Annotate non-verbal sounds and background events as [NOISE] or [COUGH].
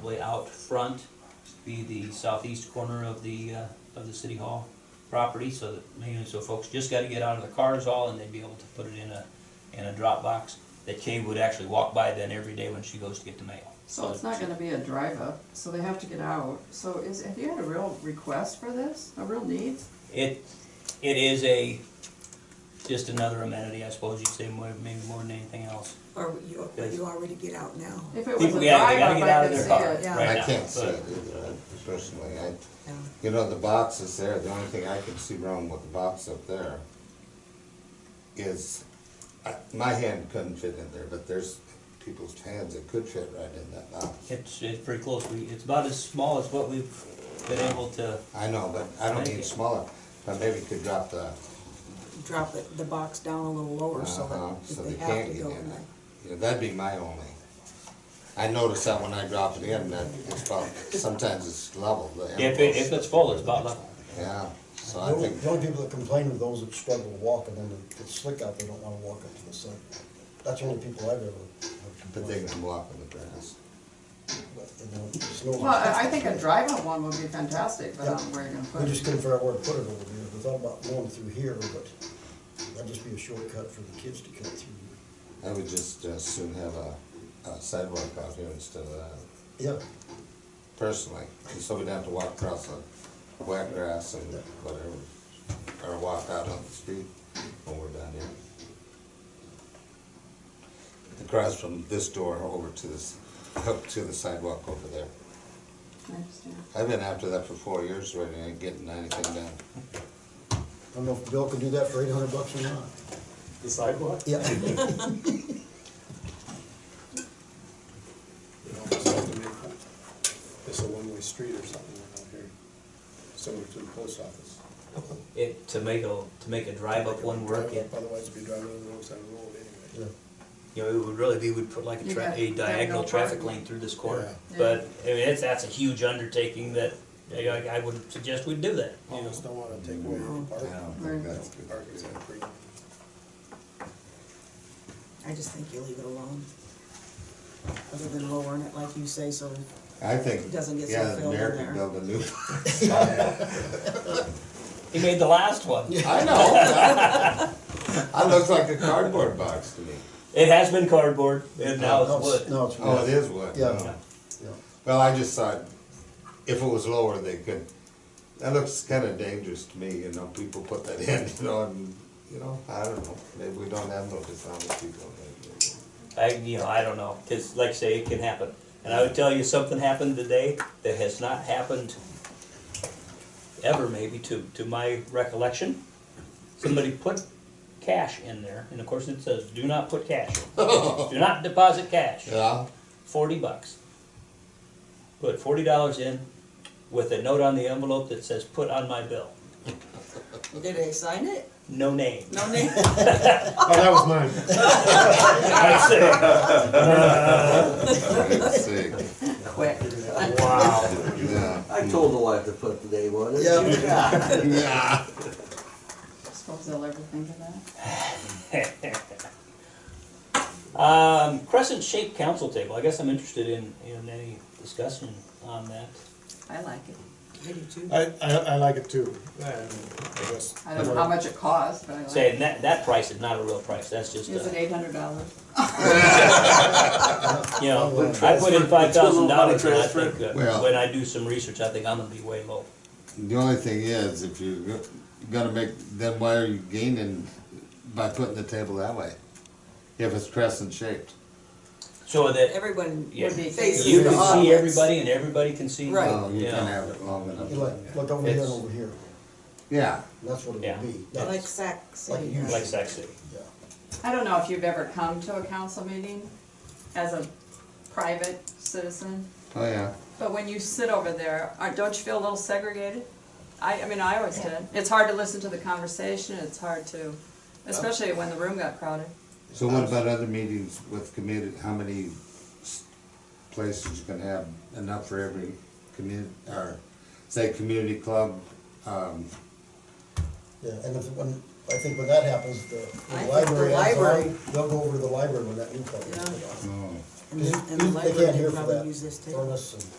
probably out front, be the southeast corner of the, uh, of the city hall property, so that, mainly so folks just gotta get out of the cars all, and they'd be able to put it in a, in a drop box that Kay would actually walk by then every day when she goes to get the mail. So it's not gonna be a drive-up, so they have to get out. So is, have you had a real request for this, a real need? It, it is a, just another amenity, I suppose you'd say, more, maybe more than anything else. Or you, or you already get out now. If it was a People, yeah, they gotta drive-up, get out I of could their see car it, yeah. right I now. I can't see but- uh, it either, I- personally, I, Yeah. you know, the box is there, the only thing I can see wrong with the box up there is, I- my hand couldn't fit in there, but there's people's hands that could fit right in that box. It's, it's pretty close, we, it's about as small as what we've been able to, I know, but I don't Thank you. need smaller, but maybe could drop the, Drop it, the box down a little lower so uh-huh, that so if they they have can't to get go in in it. Yeah, that'd be my only. I noticed that when I dropped it in, that it's about, sometimes it's level, the if it, if impulse. it's full, it's about level. Yeah, so The I only, think. the only people that complain are those that struggle walking and it's slick out, they don't wanna walk up to the sun. That's the only people I've ever. have But they complained can walk in the grass. about, you know, it's no- Well, I I think a drive-up one would be fantastic, but I don't know where you're gonna put We just it. couldn't figure out where to put it over there, we thought about going through here, but that'd just be a shortcut for the kids to cut through. I would just as soon have a a sidewalk out here instead of that, Yeah, personally. And so we don't have to walk across the wet grass and whatever, or walk out on the street when we're down here. Across from this door over to this, [LAUGHS] up to the sidewalk over there. I understand. I've been after that for four years already, and ain't getting anything done. I don't know if Bill could do that for eight hundred bucks or not. The sidewalk? [LAUGHS] Yeah, You know, it's like to make It's a one-way street or something out here, similar to the post office. It, to make a, to make a drive up one work, it, Otherwise, you'd be driving on the roadside road anyway. yeah. you know, it would really be, we'd put like a You tra- got- a got diagonal no traffic parking. lane through this corner. Yeah. But, I mean, it's, that's a huge undertaking that, you know, I, I would suggest we do that, you know. Almost don't wanna take away I any parking. don't Right. think that's a good. Parking's idea. not free. I just think you leave it alone. Other than lowering it like you say, so I think, It doesn't get so yeah, the filled in mayor could there. build a new. He made the last one. I know. [LAUGHS] I look like a cardboard box to me. It has been cardboard, and now No, it's wood. No, it's. Oh, it is wood. Yeah. Oh. Yeah. Well, I just thought if it was lower, they could. That looks kind of dangerous to me, you know. People put that in, [LAUGHS] you know, and you know, I don't know. Maybe we don't have no dishonest people. I, you know, I don't know, cause like I say, it can happen. And I would tell you, something happened today that has not happened ever maybe to, to my recollection. Somebody put cash in there, and of course it says, do not put cash. [LAUGHS] Do not deposit cash, Yeah. forty bucks. Put forty dollars in with a note on the envelope that says, put on my bill, Did they sign it? no name. No [LAUGHS] name. Oh, that was mine. I said, Let's see. Quick. Wow. Yeah. I told the wife to put the name on it. Yeah. [LAUGHS] Yeah. Suppose they'll ever think of that. Um, crescent shaped council table, I guess I'm interested in, in any discussion on that. I like it. I do too. Uh, I, I, I like it too, and I guess. I don't know how much it costs, but I like Saying it. that, that price is not a real price, that's just, Is it uh, eight hundred dollars? you know, I put in five thousand dollars and I transfer. think, that Well- when I do some research, I think I'm gonna be way low. The only thing is, if you're go- gonna make, then why are you gaining by putting the table that way? If it's crescent shaped. So that Everyone Yeah. would be facing you the can see audience. everybody and everybody can see. you. Right. Oh, you Yeah. can have it long enough. You Look, look over here and It's- over here, Yeah. that's what it Yeah. would be. Like That's- Sac Like said. you- Like Sac City. Yeah. I don't know if you've ever come to a council meeting as a private citizen, Oh, yeah. but when you sit over there, aren't- don't you feel a little segregated? I, I mean, I always did. It's hard to listen to the conversation, it's hard to, especially when the room got crowded. So what about other meetings with community, how many s- places you can have enough for every community, or say, community club? um, Yeah, and if, when, I think when that happens, I the, the think the library, adds on, library- they'll go over to the library when that new club is put Yeah. on. oh, And then, and the They can't library hear could for probably that. use this too. Furnace and